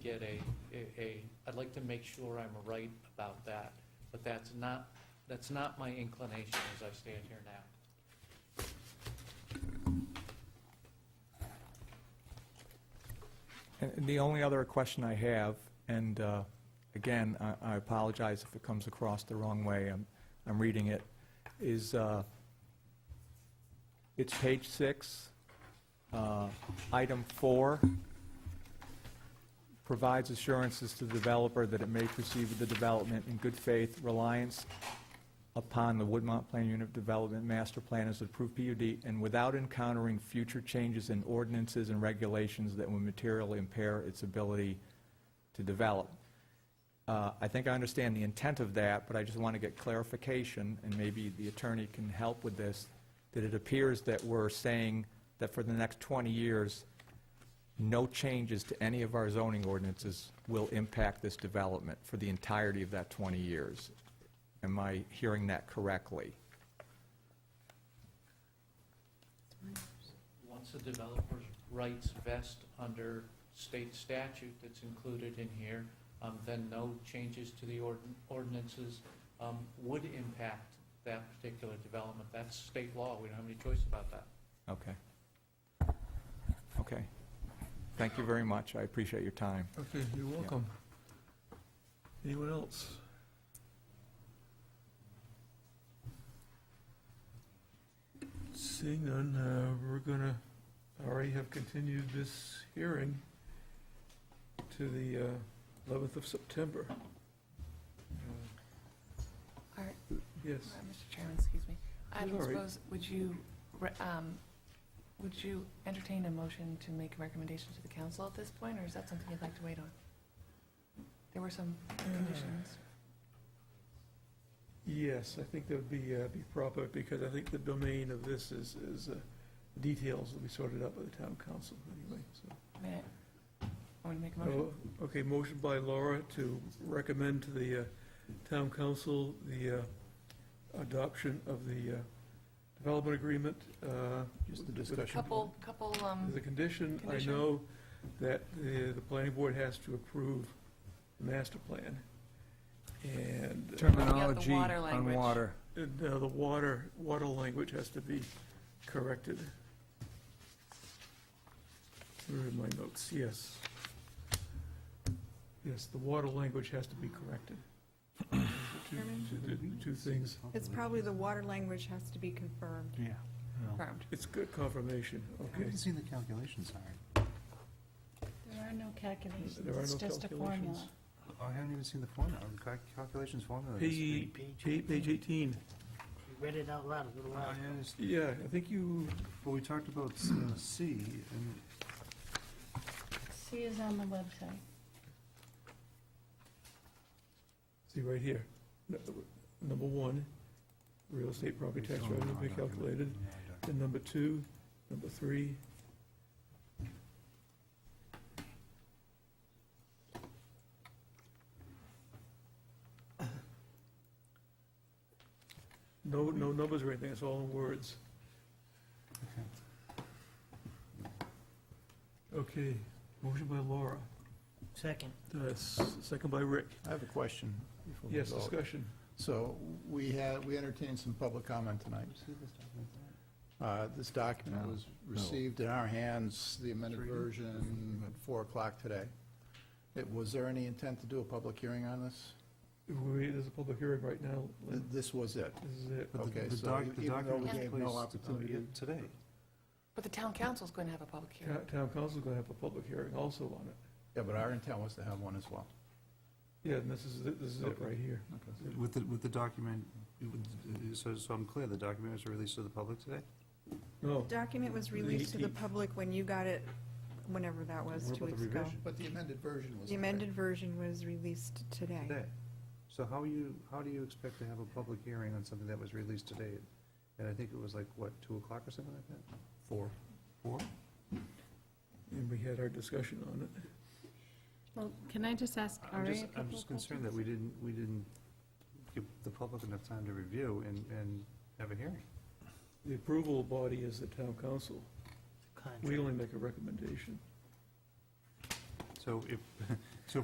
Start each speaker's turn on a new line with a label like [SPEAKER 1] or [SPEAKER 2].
[SPEAKER 1] get a, a- a, I'd like to make sure I'm right about that, but that's not, that's not my inclination as I stand here now.
[SPEAKER 2] And the only other question I have, and uh, again, I- I apologize if it comes across the wrong way, I'm, I'm reading it, is, uh, it's page six, uh, item four, provides assurances to the developer that it may proceed with the development in good faith, reliance upon the Woodmont Plan Unit Development Master Plan as approved PUD and without encountering future changes in ordinances and regulations that would materially impair its ability to develop. Uh, I think I understand the intent of that, but I just want to get clarification, and maybe the attorney can help with this, that it appears that we're saying that for the next 20 years, no changes to any of our zoning ordinances will impact this development for the entirety of that 20 years. Am I hearing that correctly?
[SPEAKER 1] Once a developer's rights vest under state statute that's included in here, um, then no changes to the ordin- ordinances um, would impact that particular development. That's state law, we don't have any choice about that.
[SPEAKER 2] Okay. Okay. Thank you very much. I appreciate your time.
[SPEAKER 3] Okay, you're welcome. Anyone else? Seeing none, uh, we're gonna, already have continued this hearing to the uh, 11th of September. Uh,
[SPEAKER 4] Art.
[SPEAKER 3] Yes,
[SPEAKER 4] Uh, Mr. Chairman, excuse me. I
[SPEAKER 3] It's all right.
[SPEAKER 4] suppose, would you, re- um, would you entertain a motion to make a recommendation to the council at this point, or is that something you'd like to wait on? There were some
[SPEAKER 5] Uh,
[SPEAKER 4] conditions.
[SPEAKER 3] yes, I think that would be, uh, be proper, because I think the domain of this is, is, uh, details will be sorted out by the town council anyway, so.
[SPEAKER 4] May I, I want to make a motion?
[SPEAKER 3] Oh, Okay, motion by Laura to recommend to the uh, town council the uh, adoption of the uh, development agreement. uh,
[SPEAKER 6] Just the
[SPEAKER 3] with- with
[SPEAKER 6] discussion.
[SPEAKER 4] Couple, couple, um,
[SPEAKER 3] As a condition, I
[SPEAKER 4] Condition.
[SPEAKER 3] know that the, the planning board has to approve the master plan. And uh,
[SPEAKER 4] Terminology
[SPEAKER 5] terminology
[SPEAKER 4] water on
[SPEAKER 5] on
[SPEAKER 4] language. water.
[SPEAKER 5] water.
[SPEAKER 3] and, uh, the water, water language has to be corrected. Where are my notes? Yes. Yes, the water language has to be corrected. Two-
[SPEAKER 7] Chairman?
[SPEAKER 3] two- Two things.
[SPEAKER 7] It's probably the water language has to be confirmed.
[SPEAKER 6] Yeah. well,
[SPEAKER 4] confirmed.
[SPEAKER 3] It's good confirmation,
[SPEAKER 6] I
[SPEAKER 3] okay.
[SPEAKER 6] haven't seen the calculations, Howard.
[SPEAKER 8] There are no calculations,
[SPEAKER 3] There are
[SPEAKER 8] it's
[SPEAKER 3] no
[SPEAKER 8] just a
[SPEAKER 3] calculations.
[SPEAKER 8] formula.
[SPEAKER 6] Oh, I haven't even seen the formula, the cal- calculations formula. is-
[SPEAKER 3] Page, page page eighteen.
[SPEAKER 9] We read it out loud a little
[SPEAKER 6] I
[SPEAKER 9] while ago.
[SPEAKER 6] understand.
[SPEAKER 3] Yeah, I think you,
[SPEAKER 6] Well, we talked about C, uh, C, and
[SPEAKER 8] C is on the website.
[SPEAKER 3] see right here. No- Number one, real estate property tax
[SPEAKER 6] Oh,
[SPEAKER 3] revenue
[SPEAKER 6] no,
[SPEAKER 3] be
[SPEAKER 6] document,
[SPEAKER 3] calculated.
[SPEAKER 6] no, document.
[SPEAKER 3] And number two, number three. No, no numbers or anything, it's all in words. Okay, motion by Laura,
[SPEAKER 9] Second.
[SPEAKER 3] uh, s- second by Rick.
[SPEAKER 6] I have a question. before we
[SPEAKER 3] Yes,
[SPEAKER 6] vote.
[SPEAKER 3] discussion.
[SPEAKER 6] So we had, we entertained some public comment tonight. Uh, This document was received in our hands, the amended version, at 4 o'clock today. It- Was there any intent to do a public hearing on this?
[SPEAKER 3] We, there's a public hearing right now.
[SPEAKER 6] Th- This was it?
[SPEAKER 3] This is it.
[SPEAKER 6] But the-
[SPEAKER 3] Okay.
[SPEAKER 6] the
[SPEAKER 3] so
[SPEAKER 6] doc-
[SPEAKER 3] you-
[SPEAKER 6] the
[SPEAKER 3] even though
[SPEAKER 6] document
[SPEAKER 3] we
[SPEAKER 6] was
[SPEAKER 3] gave
[SPEAKER 6] placed,
[SPEAKER 3] no
[SPEAKER 6] uh,
[SPEAKER 3] opportunity-
[SPEAKER 6] Today.
[SPEAKER 4] But the town council's going to have a public hearing.
[SPEAKER 3] Town town council's gonna have a public hearing also on it.
[SPEAKER 6] Yeah, but our intent was to have one as well.
[SPEAKER 3] Yeah, and this is, it- this is it right here.
[SPEAKER 5] With the, with the document, so, so I'm clear, the document was released to the public today?
[SPEAKER 3] No,
[SPEAKER 7] Document was
[SPEAKER 3] The
[SPEAKER 7] released to the
[SPEAKER 3] 18th.
[SPEAKER 7] public when you got it, whenever that was,
[SPEAKER 3] What
[SPEAKER 7] two
[SPEAKER 3] about the
[SPEAKER 7] weeks ago.
[SPEAKER 3] revision?
[SPEAKER 6] But the amended version was.
[SPEAKER 7] The amended version was released today.
[SPEAKER 5] Today. So how you, how do you expect to have a public hearing on something that was released today? And I think it was like, what, two o'clock or something like that?
[SPEAKER 6] Four.
[SPEAKER 5] Four?
[SPEAKER 3] and we had our discussion on it.
[SPEAKER 8] Well, can I just ask
[SPEAKER 5] I'm
[SPEAKER 8] Ari a
[SPEAKER 5] just,
[SPEAKER 8] couple
[SPEAKER 5] I'm
[SPEAKER 8] of
[SPEAKER 5] just concerned that
[SPEAKER 8] questions?
[SPEAKER 5] we didn't, we didn't give the public enough time to review and, and have a hearing.
[SPEAKER 3] The approval body is the town council.
[SPEAKER 9] Contract.
[SPEAKER 3] We only make a recommendation.
[SPEAKER 5] So if,